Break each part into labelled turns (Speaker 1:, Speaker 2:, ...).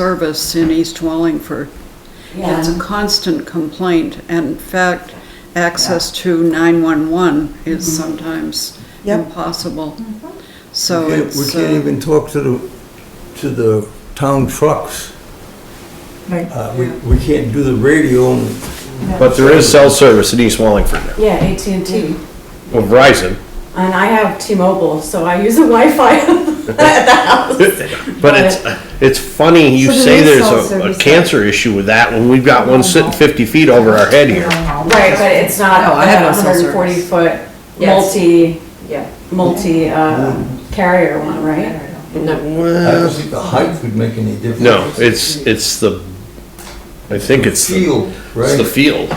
Speaker 1: service in East Wallingford. It's a
Speaker 2: Yeah.
Speaker 1: constant complaint, and in fact, access to 911 is sometimes
Speaker 3: Yep.
Speaker 1: impossible. So
Speaker 4: We can't-
Speaker 1: it's,
Speaker 4: We can't
Speaker 1: uh,
Speaker 4: even talk to the, to the town trucks.
Speaker 3: Right.
Speaker 4: Uh, we, we can't do the radio and
Speaker 5: But there is cell service in East Wallingford now,
Speaker 2: Yeah, AT&T.
Speaker 5: Well, Verizon.
Speaker 2: And I have T-Mobile, so I use the Wi-Fi at the house.
Speaker 5: But it's, it's funny, you
Speaker 3: So there
Speaker 5: say
Speaker 3: is
Speaker 5: there's
Speaker 3: cell
Speaker 5: a- a
Speaker 3: service.
Speaker 5: cancer issue with that when we've got one sitting fifty feet over our head here.
Speaker 2: Right, but it's not
Speaker 6: Oh, I have
Speaker 2: a
Speaker 6: no cell service.
Speaker 2: 140-foot
Speaker 6: Yes.
Speaker 2: multi, yeah, multi-carrier one, right?
Speaker 4: I don't
Speaker 5: Well,
Speaker 4: think the height would make any difference.
Speaker 5: No, it's, it's the, I think it's the,
Speaker 4: Field,
Speaker 5: it's the
Speaker 4: right?
Speaker 5: field.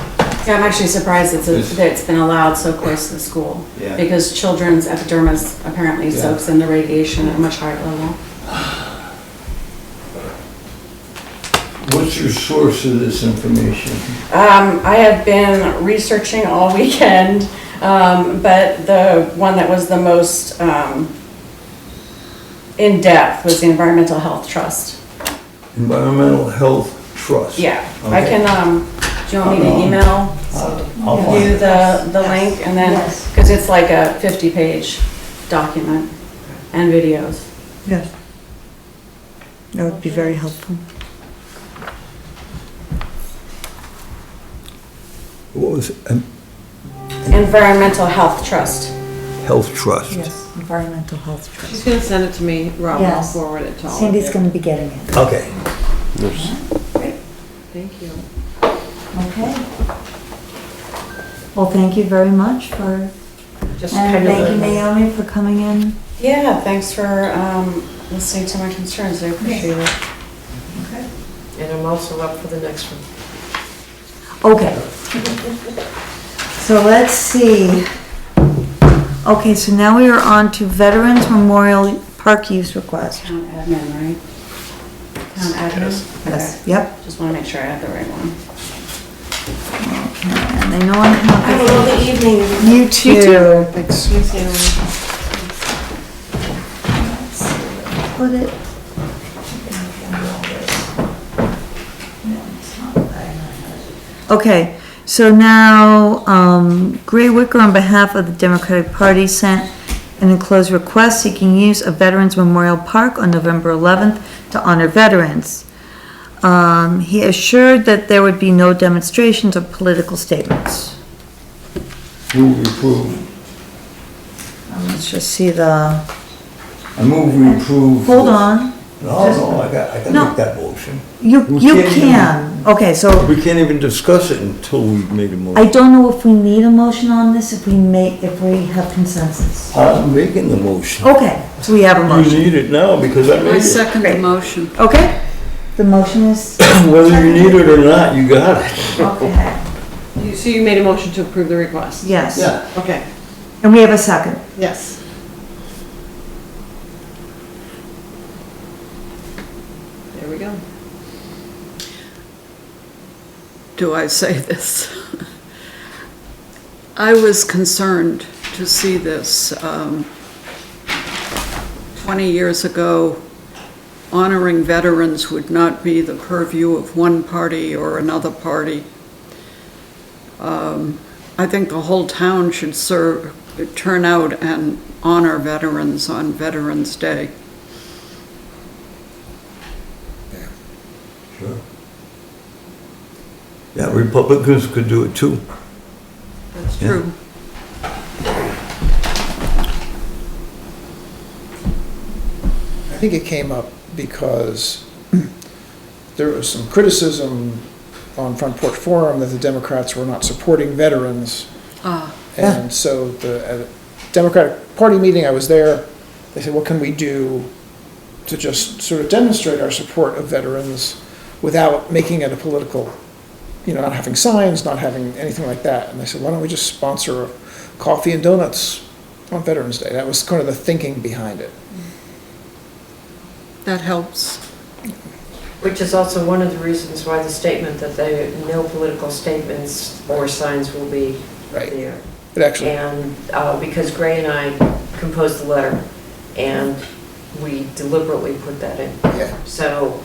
Speaker 2: Yeah, I'm actually surprised it's,
Speaker 4: Yes.
Speaker 2: that it's been allowed so close to the school.
Speaker 4: Yeah.
Speaker 2: Because children's epidermis apparently
Speaker 4: Yeah.
Speaker 2: soaks in the radiation at a much higher level.
Speaker 4: What's your source of this information?
Speaker 2: Um, I have been researching all weekend, um, but the one that was the most, um, in-depth was the Environmental Health Trust.
Speaker 4: Environmental Health Trust.
Speaker 2: Yeah, I
Speaker 4: Okay.
Speaker 2: can, um, do you want me to email
Speaker 4: I'll find
Speaker 2: you
Speaker 4: it.
Speaker 2: the, the link and then,
Speaker 6: Yes.
Speaker 2: cause it's like a fifty-page document and videos.
Speaker 3: Yes. That would be very helpful.
Speaker 4: What was, it? Um,
Speaker 2: Environmental Health Trust.
Speaker 4: Health Trust?
Speaker 3: Yes, environmental health trust.
Speaker 6: She's gonna send it to me, Rob, and I'll
Speaker 7: Yes.
Speaker 6: forward it to all of you.
Speaker 7: Cindy's gonna be getting it,
Speaker 4: Okay.
Speaker 6: Thank you.
Speaker 7: okay? Well, thank you very much for,
Speaker 6: Just
Speaker 7: and
Speaker 6: kind
Speaker 7: thank you
Speaker 6: of, a-
Speaker 7: Naomi for coming in.
Speaker 2: Yeah, thanks for, um, listening to my concerns, I appreciate it.
Speaker 6: and I'm also up for the next one.
Speaker 7: Okay. So let's see. Okay, so now we are on to Veterans Memorial Park use request.
Speaker 2: Town admin, right? Town admin?
Speaker 7: Yes, yep.
Speaker 2: Okay, Just wanna make sure I have the right one.
Speaker 7: And I know I have it.
Speaker 6: the evening.
Speaker 7: You too.
Speaker 6: Excuse me.
Speaker 7: Put it. Okay, so now, um, Gray Wicker on behalf of the Democratic Party sent an enclosed request seeking use of Veterans Memorial Park on November eleventh to honor veterans. Um, he assured that there would be no demonstrations or political statements.
Speaker 4: Move we approve.
Speaker 7: Um, Let's just see the,
Speaker 4: I move we approve.
Speaker 7: hold on,
Speaker 4: No, no, I got, I can
Speaker 7: No.
Speaker 4: make that motion.
Speaker 7: you,
Speaker 4: We
Speaker 7: you
Speaker 4: can't even-
Speaker 7: can, okay, so.
Speaker 4: We can't even discuss it until we've made a motion.
Speaker 7: I don't know if we need a motion on this, if we make, if we have consensus.
Speaker 4: I'm making the motion.
Speaker 7: Okay, so we have a
Speaker 4: You
Speaker 7: motion.
Speaker 4: need it now because I
Speaker 1: I
Speaker 4: made it.
Speaker 1: second the motion.
Speaker 7: Okay, the motion is,
Speaker 4: Whether you need it or not, you got it.
Speaker 7: okay,
Speaker 6: You- So you made a motion to approve the request?
Speaker 7: yes.
Speaker 4: Yeah.
Speaker 6: Okay,
Speaker 7: And we have a second.
Speaker 6: yes. There we go.
Speaker 1: do I say this? I was concerned to see this um, 20 years ago. Honoring veterans would not be the purview of one party or another party. Um, I think the whole town should serve, turn out and honor veterans on Veterans Day.
Speaker 4: Sure. Yeah, Republicans could do it too.
Speaker 1: That's
Speaker 4: Yeah.
Speaker 1: true.
Speaker 8: I think it came up because there was some criticism on Front Porch Forum that the Democrats were not supporting veterans.
Speaker 1: Ah,
Speaker 8: And so the at a Democratic Party meeting, I was there, they said, what can we do to just sort of demonstrate our support of veterans without making it a political, you know, not having signs, not having anything like that? And they said, why don't we just sponsor coffee and donuts on Veterans Day? That was kind of the thinking behind it.
Speaker 1: That helps.
Speaker 6: Which is also one of the reasons why the statement that they, no political statements or signs will be
Speaker 8: Right.
Speaker 6: there.
Speaker 8: It actually
Speaker 6: And, uh, because Gray and I composed the letter, and we deliberately put that in.
Speaker 8: Yeah.
Speaker 6: So